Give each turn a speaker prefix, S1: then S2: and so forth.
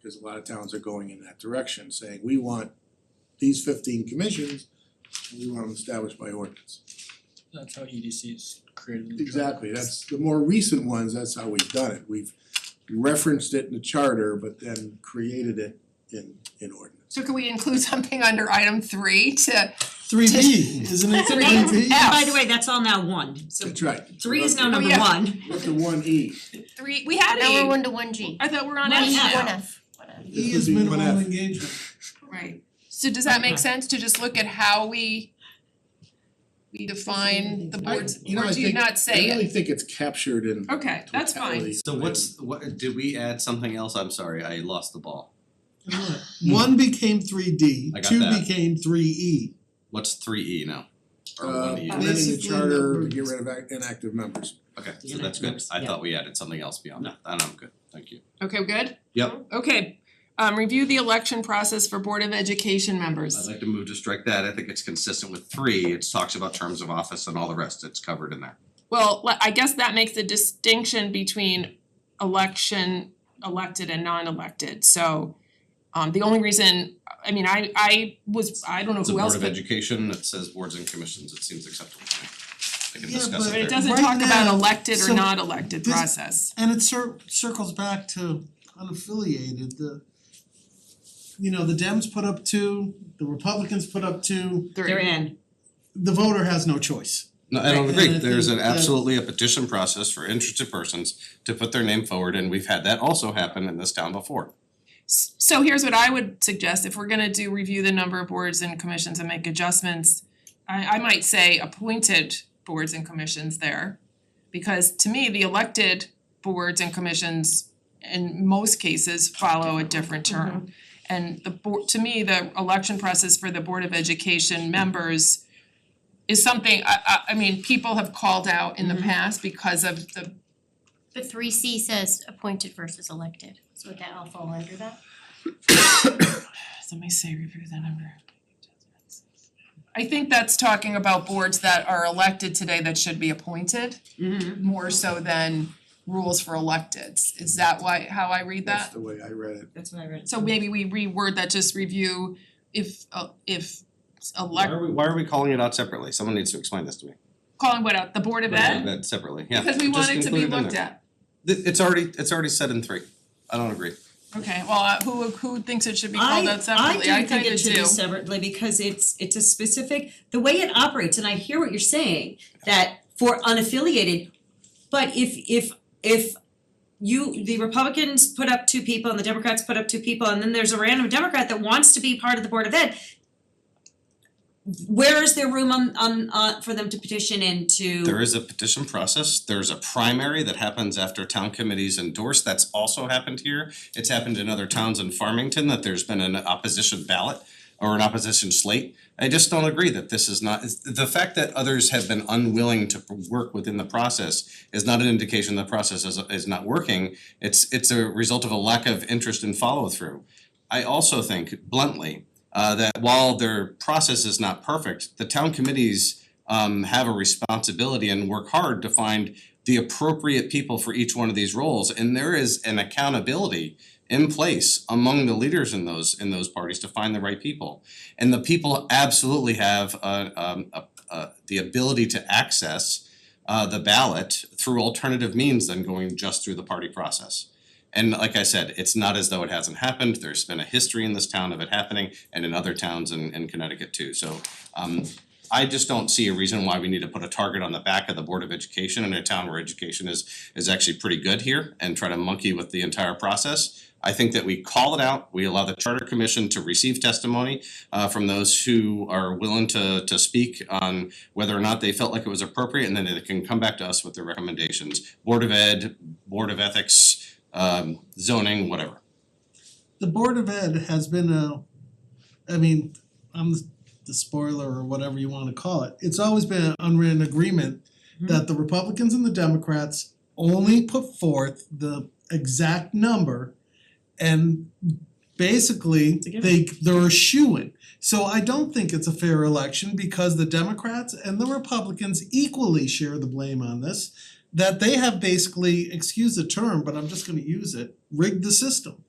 S1: because a lot of towns are going in that direction, saying we want these fifteen commissions, and we want them established by ordinance.
S2: That's how EDC is created in the charter.
S1: Exactly, that's the more recent ones, that's how we've done it, we've referenced it in the charter, but then created it in in ordinance.
S3: So can we include something under item three to,
S2: Three B, isn't it
S3: Three
S2: three B?
S3: F.
S4: By the way, that's all now one, so
S1: That's right.
S4: three is now
S3: Oh,
S4: number
S3: yeah.
S4: one.
S1: With the one E,
S3: three, we had
S5: Now we're
S3: a,
S5: one to one G.
S3: I thought we were on
S4: One
S3: F
S4: F.
S3: now.
S5: One F. One F.
S2: E
S1: This
S2: is
S1: would be
S2: minimal
S1: one F.
S2: engagement.
S3: Right. So does
S1: Uh-huh.
S3: that make sense to just look at how we we define the
S2: I-
S3: boards,
S1: you know,
S3: or
S1: I
S3: do you
S1: think-
S3: not
S1: I
S3: say it?
S1: really think it's captured in
S3: Okay, that's fine.
S1: totality.
S6: So what's, what, did we add something else? I'm sorry, I lost the ball.
S1: Hmm.
S2: One became three D,
S6: I got
S2: two
S6: that.
S2: became three E.
S6: What's three E now? Or
S1: Uh,
S6: one E?
S2: and then-
S1: amending the
S2: Basically
S1: charter to
S2: numbers.
S1: get rid of ac- inactive members.
S6: Okay,
S4: Yeah,
S6: so that's good.
S4: that's-
S6: I
S4: yeah.
S6: thought we added something else beyond that. Then I'm good, thank you.
S3: Okay, good?
S6: Yep.
S3: Okay, um review the election process for Board of Education
S6: I'd
S3: members.
S6: like to move to strike that. I think it's consistent with three. It talks about terms of office and all the rest. It's covered in there.
S3: Well, le- I guess that makes a distinction between election, elected and non-elected, so um the only reason, I mean, I I was, I don't know
S6: It's a
S3: who
S6: board
S3: else,
S6: of
S3: but
S6: education. It says boards and commissions. It seems acceptable to me. I can
S2: Yeah,
S6: discuss
S2: but
S6: it
S3: but
S6: there.
S3: it doesn't
S2: Right
S3: talk about
S2: now,
S3: elected or
S2: so
S3: not elected
S2: this-
S3: process.
S2: And it cir- circles back to unaffiliated, the you know, the Dems put up two, the Republicans put up two,
S3: Three.
S4: They're in.
S2: the voter has no choice.
S6: No, I don't
S2: Right,
S6: agree.
S2: and I
S6: There's
S2: think
S6: an
S2: that-
S6: absolutely a petition process for interested persons to put their name forward and we've had that also happen in this town before.
S3: S- So here's what I would suggest, if we're gonna do review the number of boards and commissions and make adjustments, I I might say appointed boards and commissions there. Because to me, the elected boards and commissions in most cases follow a different term. And the board, to me, the election process for the Board of Education members is something, I I I mean, people have called out in the past because of the
S5: But three C says appointed versus elected, so would that all fall under that?
S3: Somebody say review the number. I think that's talking about boards that are elected today that should be appointed,
S4: Mm-hmm.
S3: more so than rules for electeds. Is that why, how I read
S1: That's
S3: that?
S1: the way I read it.
S4: That's what I read.
S3: So maybe we reword that, just review if uh if
S6: Why
S3: elect,
S6: are we, why are we calling it out separately? Someone needs to explain this to me.
S3: calling what out, the Board of Ed?
S6: That separately, yeah.
S3: Because we want
S6: Just
S3: it to
S6: include
S3: be
S6: in
S3: looked
S6: there.
S3: at.
S6: Th- it's already, it's already said in three. I don't agree.
S3: Okay, well, uh, who who thinks it should be called out separately?
S4: I
S3: I
S4: do think
S3: kinda do.
S4: it should be separately because it's it's a specific, the way it operates, and I hear what you're saying, that for unaffiliated, but if if if you, the Republicans put up two people and the Democrats put up two people, and then there's a random Democrat that wants to be part of the Board of Ed, where is there room on on uh for them to petition into?
S6: There is a petition process, there's a primary that happens after town committees endorse, that's also happened here. It's happened in other towns in Farmington, that there's been an opposition ballot or an opposition slate. I just don't agree that this is not, it's- the fact that others have been unwilling to work within the process is not an indication the process is is not working. It's it's a result of a lack of interest and follow through. I also think bluntly uh that while their process is not perfect, the town committees um have a responsibility and work hard to find the appropriate people for each one of these roles and there is an accountability in place among the leaders in those in those parties to find the right people. And the people absolutely have uh um a uh the ability to access uh the ballot through alternative means than going just through the party process. And like I said, it's not as though it hasn't happened, there's been a history in this town of it happening and in other towns in in Connecticut too, so um I just don't see a reason why we need to put a target on the back of the Board of Education in a town where education is is actually pretty good here and try to monkey with the entire process. I think that we call it out, we allow the Charter Commission to receive testimony uh from those who are willing to to speak on whether or not they felt like it was appropriate, and then they can come back to us with their recommendations. Board of Ed, Board of Ethics, um zoning, whatever.
S2: The Board of Ed has been a, I mean, I'm the spoiler or whatever you wanna call it, it's always been an unwritten agreement that the Republicans and the Democrats only put forth the exact number and basically
S4: a given.
S2: they they're a shoo-in. So I don't think it's a fair election because the Democrats and the Republicans equally share the blame on this. That they have basically, excuse the term, but I'm just gonna use it, rigged the system.